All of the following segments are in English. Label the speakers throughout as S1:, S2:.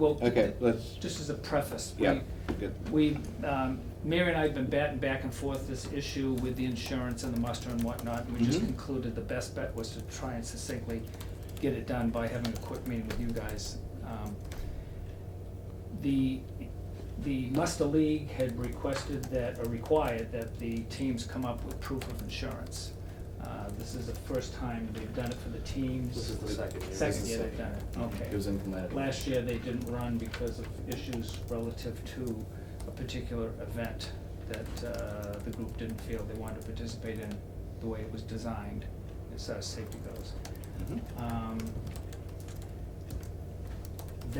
S1: Well,
S2: Okay, let's,
S1: just as a preface, we,
S2: yeah, good.
S1: we, um, Mary and I have been batting back and forth this issue with the insurance and the muster and whatnot, and we just
S2: Mhm.
S1: concluded the best bet was to try and succinctly get it done by having a quick meeting with you guys. Um, The, the muster league had requested that, or required that the teams come up with proof of insurance. Uh, this is the first time they've done it for the teams.
S3: This is the second Mm-hmm. year.
S1: Second year they've done it, okay.
S3: It was implemented.
S1: Last year, they didn't run because of issues relative to a particular event that uh, the group didn't feel they wanted to participate in the way it was designed, as far as safety goes.
S2: Mhm.
S1: Um,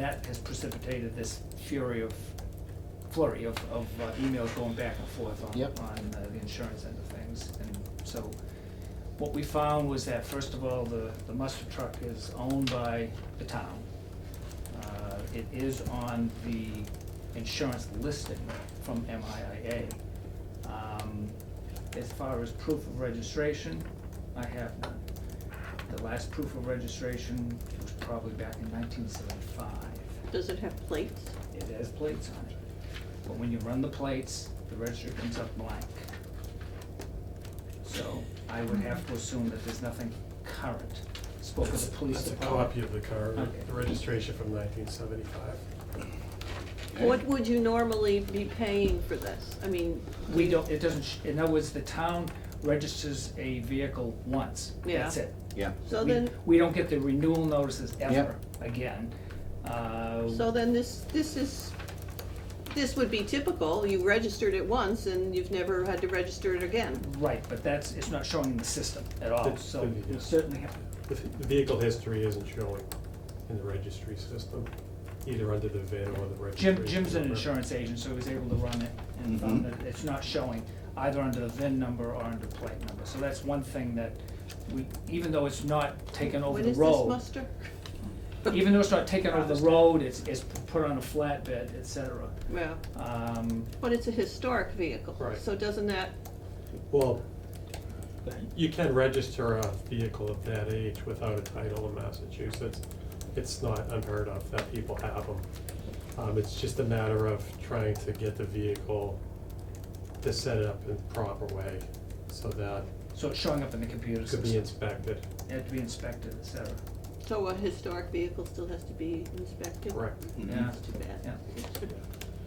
S1: That has precipitated this fury of, flurry of, of uh, emails going back and forth on,
S3: Yep.
S1: on uh, the insurance end of things. And so what we found was that, first of all, the, the muster truck is owned by the town. Uh, It is on the insurance listing from MIA. Um, As far as proof of registration, I have none. The last proof of registration was probably back in nineteen seventy-five.
S4: Does it have plates?
S1: It has plates on it. But when you run the plates, the register comes up blank. So I would have to assume that there's nothing current. Spoke with the police
S5: That's a
S1: department.
S5: copy of the car,
S1: Okay.
S5: the registration from nineteen seventy-five.
S4: What would you normally be paying for this? I mean,
S1: We don't, it doesn't, sh- in other words, the town registers a vehicle once, that's
S4: Yeah.
S1: it.
S2: Yeah,
S4: so
S1: We-
S4: then,
S1: We don't get the renewal notices ever
S2: Yeah.
S1: again. Uh,
S4: so then this, this is, this would be typical, you registered it once and you've never had to register it again.
S1: Right, but that's, it's not showing in the system at all,
S5: It's-
S1: so we
S5: yeah.
S1: certainly have,
S5: The f- the vehicle history isn't showing in the registry system, either under the VIN or the registration.
S1: Jim, Jim's an
S5: number.
S1: insurance agent, so he was able to run it and found
S2: Mhm.
S1: that it's not showing either under the VIN number or under plate number. So that's one thing that we, even though it's not taken over
S4: When
S1: the
S4: is this
S1: road,
S4: muster?
S1: even though it's not taken over the road, it's, it's put on a flatbed, et cetera.
S4: Yeah,
S1: Um,
S4: but it's a historic vehicle,
S5: Right.
S4: so doesn't that,
S5: Well, you can register a vehicle of that age without a title in Massachusetts. It's not unheard of that people have them. Um, it's just a matter of trying to get the vehicle to set it up in the proper way so that
S1: so it's showing up in the computer
S5: it could be
S1: system,
S5: inspected.
S1: it had to be inspected, et cetera.
S4: so a historic vehicle still has to be inspected?
S5: Correct.
S2: Mhm.
S1: Yeah.
S4: That's too bad.
S1: Yeah.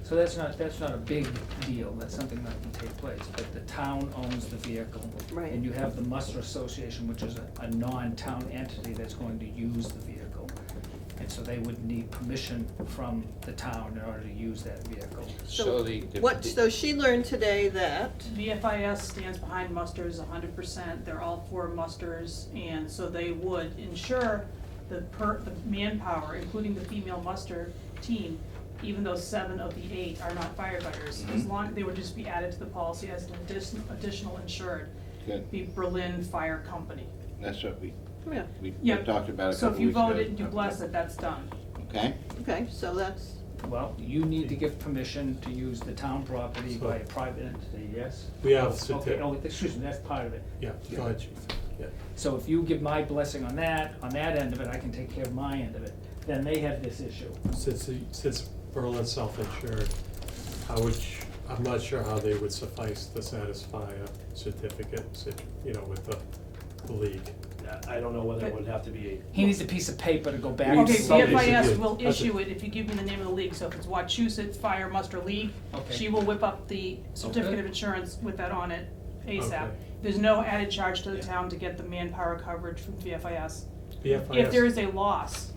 S1: So that's not, that's not a big deal, that's something that can take place, but the town owns the vehicle.
S4: Right.
S1: And you have the muster association, which is a, a non-town entity that's going to use the vehicle. And so they would need permission from the town in order to use that vehicle.
S4: So What, so she learned today that,
S6: VFIS stands behind musters hundred percent, they're all for musters, and so they would ensure the per, the manpower, including the female muster team, even though seven of the eight are not firefighters, as
S2: Mhm.
S6: long, they would just be added to the policy as an additional, additional insured,
S2: good,
S6: the Berlin Fire Company.
S2: that's what we,
S4: yeah,
S2: we
S6: Yeah.
S2: talked about a
S6: So
S2: couple
S6: if
S2: weeks
S6: you
S2: ago.
S6: voted and you blessed it, that's done.
S2: Okay,
S4: okay, so that's,
S1: Well, you need to give permission to use the town property by a private entity, yes?
S5: We have
S1: Okay,
S5: certi-
S1: no, excuse me, that's part of it.
S5: Yeah, go ahead, chief. Yeah.
S1: So if you give my blessing on that, on that end of it, I can take care of my end of it, then they have this issue.
S5: Since, since Berlin's self-insured, I would, sh- I'm not sure how they would suffice to satisfy a certificate, sit- you know, with the the league.
S3: I I don't know whether it would have to be a.
S1: He needs a piece of paper to go back.
S5: We
S1: and
S6: Okay,
S5: just- somebody
S1: sign.
S5: should do
S6: VFIS
S5: it.
S6: will
S5: That's
S6: issue it if you give me the name of the league, so if it's Wachusett Fire Muster League,
S1: Okay.
S6: she will whip up the certificate
S1: Okay.
S6: of insurance with that on it ASAP.
S5: Okay.
S6: There's no added charge to the
S3: Yeah.
S6: town to get the manpower coverage from VFIS. If there
S5: BFIS,
S6: is a loss,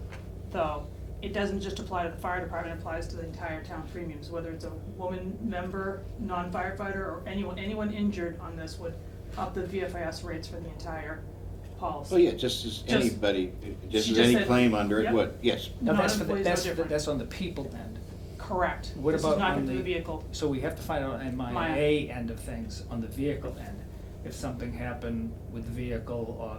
S6: though, it doesn't just apply to the fire department, it applies to the entire town premiums, whether it's a woman member, non-firefighter, or anyone, anyone injured on this would up the VFIS rates for the entire policy.
S2: oh yeah, just as
S6: Just-
S2: anybody, just
S6: She
S2: as
S6: just
S2: any
S6: said-
S2: claim under it
S6: Yep.
S2: would, yes,
S1: Now, that's for, the-
S6: Non-employees are
S1: that's,
S6: different.
S1: that's on the people end,
S6: Correct.
S1: What about on
S6: This is not
S1: the-
S6: the vehicle.
S1: so we have to find out on my
S6: My-
S1: A end of things, on the vehicle end, if something happened with the vehicle or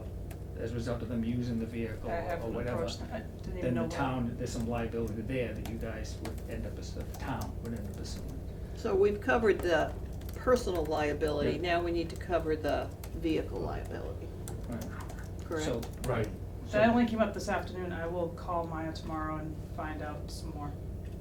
S1: as a result of them using the vehicle
S6: I
S1: or
S6: haven't
S1: Oh, whatever.
S6: approached that. I didn't even
S1: Then
S6: know.
S1: the
S6: what-
S1: town, there's some liability there that you guys would end up as, the town would end up as.
S4: So we've covered the personal liability, now we need to cover the vehicle liability,
S1: Right.
S4: correct?
S1: So,
S5: right,
S1: so-
S6: That only came up this afternoon. I will call Maya tomorrow and find out some more.